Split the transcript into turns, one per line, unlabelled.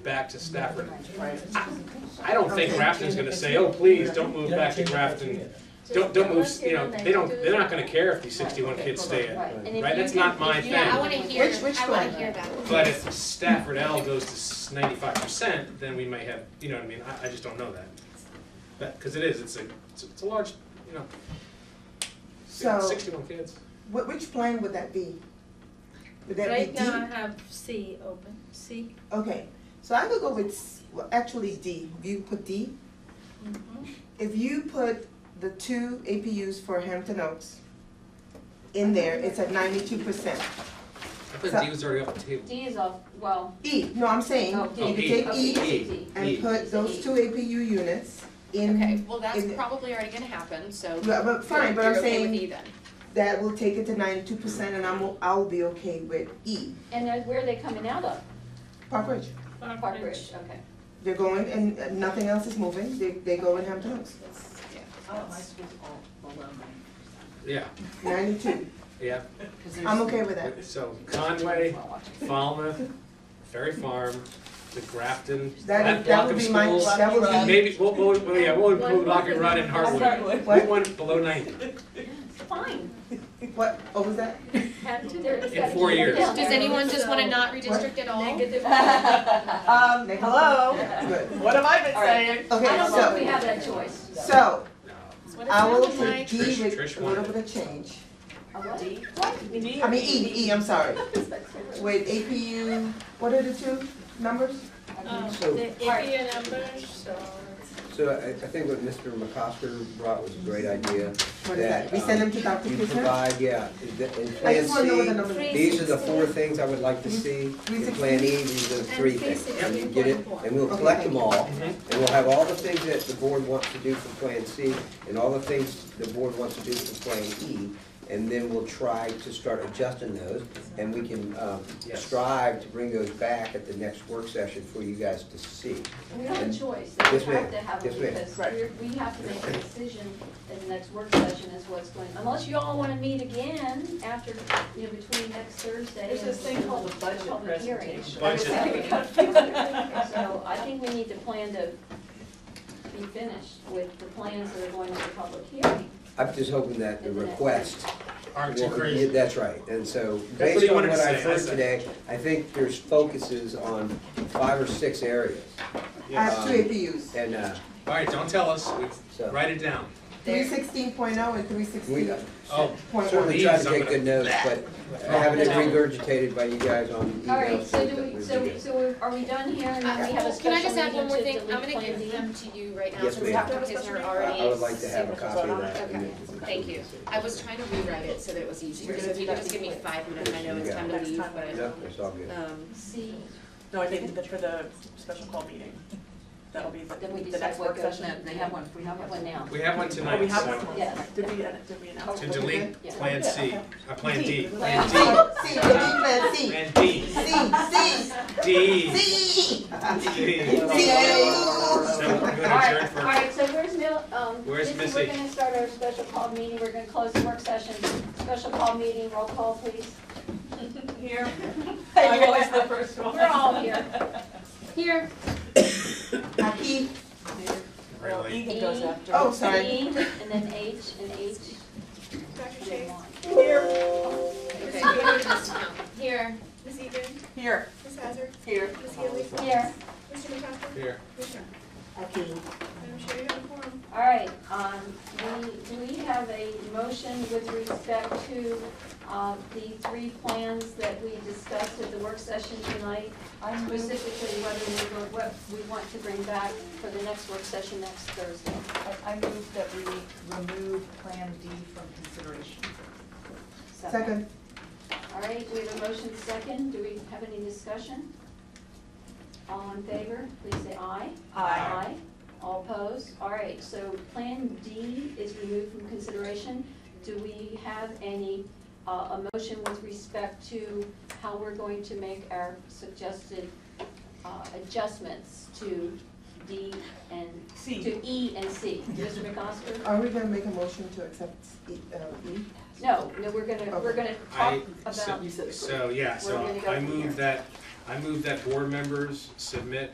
back to Stafford.
Right.
I don't think Grafton's gonna say, oh, please, don't move back to Grafton. Don't, don't move, you know, they don't, they're not gonna care if these sixty-one kids stay in.
Right.
And if
Right,
you
that's
can-
not my
if you-
thing.
Yeah, I wanna hear,
Which- which
I wanna
one?
hear that.
But if Stafford L goes to ninety-five percent, then we may have, you know what I mean, I, I just don't know that. That, cause it is, it's a, it's a- it's a large, you know,
So,
sixty-one kids.
wh- which plan would that be? Would that
Right
be
now I
uh,
D?
have C open, C.
Okay, so I could go with, s- well, actually D, you put D?
Mm-hmm.
If you put the two APUs for Hampton Oaks in there, it's at ninety-two percent.
I thought D was already off the table.
D is off, well,
E, no, I'm saying,
Oh, D.
you could take
Okay,
E
E.
and put those two APU units in.
Okay, well, that's
in-
probably already gonna happen, so.
Yeah, but fine, but I'm
you're okay with
saying
E then.
that will take it to ninety-two percent and I'm, o- I'll be okay with E.
and then where are they coming out of?
Park Ridge,
Park Ridge, okay.
they're going and uh, nothing else is moving, they, they go in Hampton Oaks,
Oh, my school's all below mine,
Yeah,
ninety-two.
yeah,
cause there's.
I'm okay with that.
so Conway, Falmouth, Ferry Farm, the Grafton, that
That, that
block
would
of
be my,
schools.
that would be.
Maybe, we'll, we'll, well, yeah, we'll
One
include Lock and
more.
Rod and Hartwood. We
What,
went below ninety.
Fine,
what, what was that?
Had to- there- it's
In
gotta
four
keep it
years.
down.
Does anyone just wanna not redistrict at all?
Negative.
Um,
Negative?
hello?
Good.
What have I been
All right.
saying?
I
Okay,
don't know if we
so,
have that choice.
so,
No.
What is
I
wrong
will
with
put D
my-
Trish-
with
Trish
a little
wanted
bit of change.
A what? What?
I mean, E, E, I'm sorry. With APU, what are the two numbers?
Um,
So-
the APA numbers, so.
So I, I think what Mr. McCosker brought was a great idea.
What is that? We send them to Dr.
You
Kisner?
provide, yeah, in the- in
I
Plan
just wanna know what the Mm-hmm.
C,
numbers are.
these are the four things I would like to see. In Plan E, these are the three things. And you get it, and we'll collect them all.
Mhm.
Mm-hmm.
And we'll have all the things that the board wants to do for Plan C and all the things the board wants to do for Plan E. And then we'll try to start adjusting those and we can, um,
Yes.
strive to bring those back at the next work session for you guys to see.
We have a choice, we
Yes,
have
ma'am.
to have
Yes,
it
ma'am.
because
Right.
we're, we have to make a decision in the next work session is what's going, unless you all wanna meet again after, you know, between next Thursday.
There's
and
this thing called a budget
public hearing.
presentation.
Budget.
So I think we need to plan to be finished with the plans that are going to the public hearing.
I'm just hoping that the request
Aren't too
Well,
crazy.
yeah, That's right, and so,
That's what he
based on
wanted
what
to
I've
say, I
heard
said.
today, I think there's focuses on five or six areas,
I
Yes.
have two APUs,
and, uh,
All right, don't tell us, We-
so.
write it down.
three sixteen point oh and three
We
sixteen
uh,
Oh,
point one.
certainly try to take good notes, but having it
Problem.
regurgitated by you guys on emails.
All right, so
that
do we,
would
so,
be
we-
good.
so we- are we done here and then we have a
Uh, Can I just
special
add one more
meeting
thing?
to
I'm
delete
gonna
Plan D?
give them to you right now,
Yes,
since
ma'am.
Dr. Kizner
I
already.
I would like to have a
signed-
copy of that. and
Okay,
then-
thank you. I was trying to rewrite it so that it was easier, so if you could just give me five minutes, I know it's time to
Next
leave,
time.
but,
No, it's all good.
um,
See,
No, I think that for the special call meeting, that'll be the,
then we
the
decide
next
what
work
goes
session.
next, they have one, we have one now.
we have one
Oh, we
tonight,
have
so-
one?
Yes.
Did we, edit- did we announce?
to delete
Yeah.
Plan C, uh, Plan D, Plan
Plan D.
D,
C, delete plan C,
Plan D,
C,
D, D.
C, C.
So we're
All
gonna adjourn
right, all
for,
right, so where's Mil, um,
Where's
Missy,
Missy?
we're gonna start our special call meeting, we're gonna close the work session, special call meeting, roll call, please. Here.
I'm always the first one.
We're all here. Here.
Aki,
Well,
really,
Ethan goes
E.
after.
oh, sorry.
E, And then H, and H.
Dr.
and
Chase,
Y.
okay, we have to discount.
Here,
Ms. Egan,
Here.
Ms. Hazard,
Here.
Ms. Healy,
here,
Mr. McCaffrey,
here,
Ms. Young.
Aki.
Madam Chair, you have a quorum.
all right, um, we, do we have a motion with respect to, uh, the three plans that we discussed at the work session tonight?
I move,
specifically whether we were, what we want to bring back for the next work session next Thursday.
I I move that we remove Plan D from consideration.
Second,
All right, we have a motion second. Do we have any discussion? All in favor, please say aye.
Aye.
All opposed? All right, so Plan D is removed from consideration. Do we have any, uh, a motion with respect to how we're going to make our suggested, uh, adjustments to D and,
C.
to E and C? Mr. McCosker?
are we gonna make a motion to accept E, uh, E?
No, no, we're gonna, we're gonna talk
I-
about
so, yeah, so
We're gonna go
I
from here.
move that, I move that board members submit